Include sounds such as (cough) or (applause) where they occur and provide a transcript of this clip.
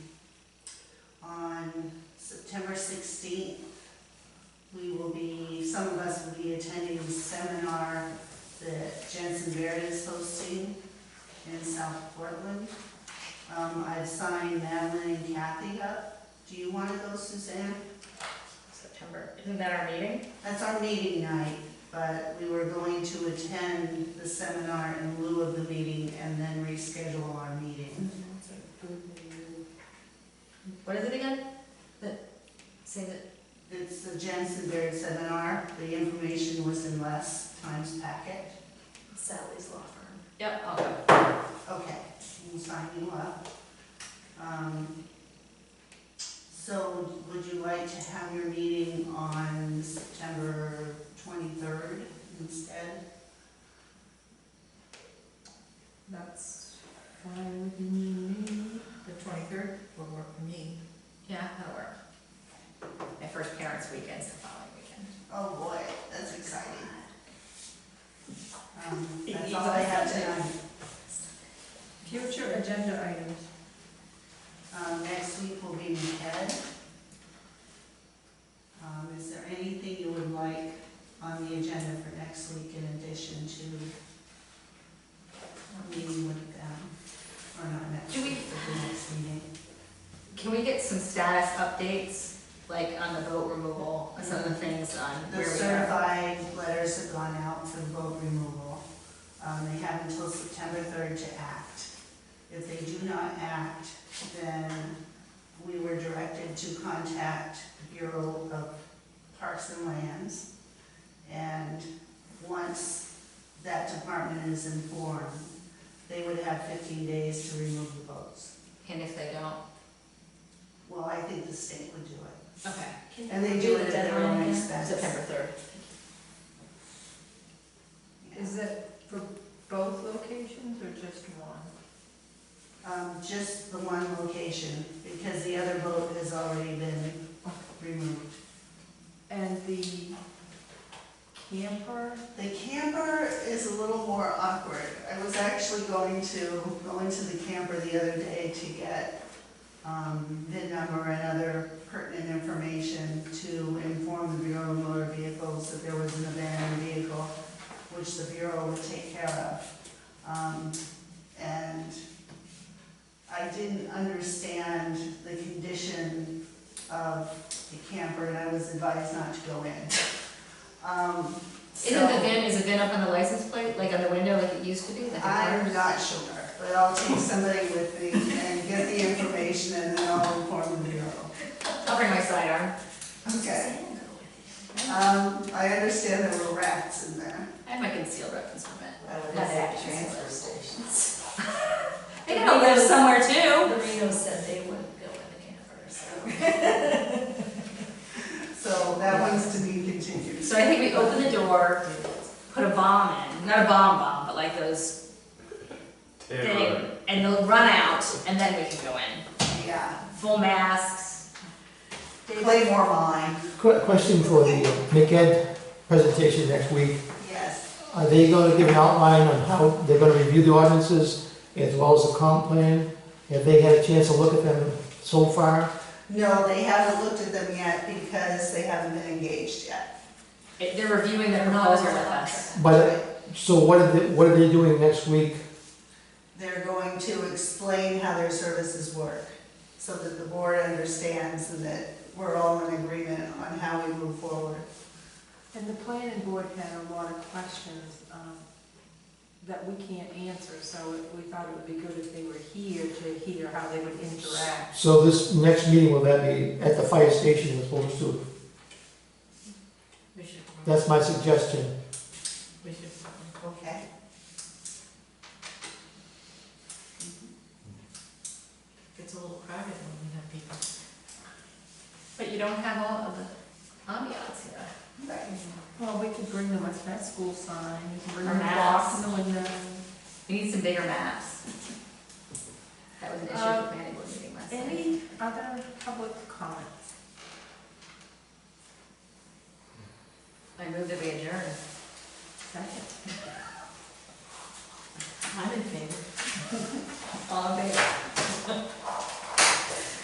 on September 16th, we will be, some of us will be attending a seminar that Jensen Baird is hosting in South Portland. Um, I've signed Madeline and Kathy up. Do you want to go, Suzanne? September, isn't that our meeting? That's our meeting night, but we were going to attend the seminar in lieu of the meeting and then reschedule our meeting. What is it again? The, say that, It's the Jensen Baird seminar. The information was in last time's packet. Sally's law firm. Yep, I'll go. Okay, we'll sign you up. Um, So would you like to have your meeting on September 23rd instead? That's fine with me. The twenty-third will work for me. Yeah, that'll work. My first parents' weekend's the following weekend. Oh, boy, that's exciting. Um, That's all I have tonight. Future agenda items. Um, Next week will be MCAD. Um, Is there anything you would like on the agenda for next week in addition to our meeting with them? Or not next Do we- week, but the next meeting? Can we get some status updates, like on the boat removal, some of the things on The where we are? certified letters have gone out for the boat removal. Um, They have until September 3rd to act. If they do not act, then we were directed to contact the Bureau of Parks and Lands. And once that department is informed, they would have 15 days to remove the boats. And if they don't, Well, I think the state would do it. okay. And they do it at their own expense. September third. Yeah. Is it for both locations or just one? Um, just the one location, because the other boat has already been removed. And the camper? The camper is a little more awkward. I was actually going to, going to the camper the other day to get, um, VIN number and other pertinent information to inform the Bureau of Motor Vehicles that there was an abandoned vehicle, which the Bureau would take care of. Um, and I didn't understand the condition of the camper, and I was advised not to go in. Um, Isn't the so- VIN, is the VIN up on the license plate, like on the window like it used to be? like a I'm car? not sure, but I'll take somebody with me and get the information and then I'll inform the Bureau. I'll bring my sidearm. Okay. Um, I understand there were rats in there. I have my concealed weapons permit. Not at the transfer stations. (laughs) They gotta live somewhere too. Marino said they wouldn't go in the camper, so. So that one's to be continued. So I think we open the door, put a bomb in, not a bomb bomb, but like those thing, and they'll run out, and then we can go in. Yeah, Full masks. Claymore mine, Que- Question for the MCAD presentation next week. yes. Are they going to give an outline on how they're going to review the ordinances as well as the comp plan? Have they had a chance to look at them so far? No, they haven't looked at them yet because they haven't been engaged yet. It- They're reviewing their Not proposal under with us. contract. But, uh, so what are they, what are they doing next week? They're going to explain how their services work so that the board understands and that we're all in agreement on how we move forward. And the planning board had a lot of questions um, that we can't answer, so we thought it would be good if they were here to hear how they would interact. So this next meeting, will that be at the fire station as opposed to? We should, That's my suggestion. we should. Okay. It's a little crowded when we have people. But you don't have all of the ambiance here. Right. Well, we could bring them a pet school sign, we could bring Or them a box maps. in the window. We need some bigger maps. That was an issue at the Um, planning board meeting last night. Any other public comments? I moved that we adjourn. Second. I'm in favor. (laughs) All in favor?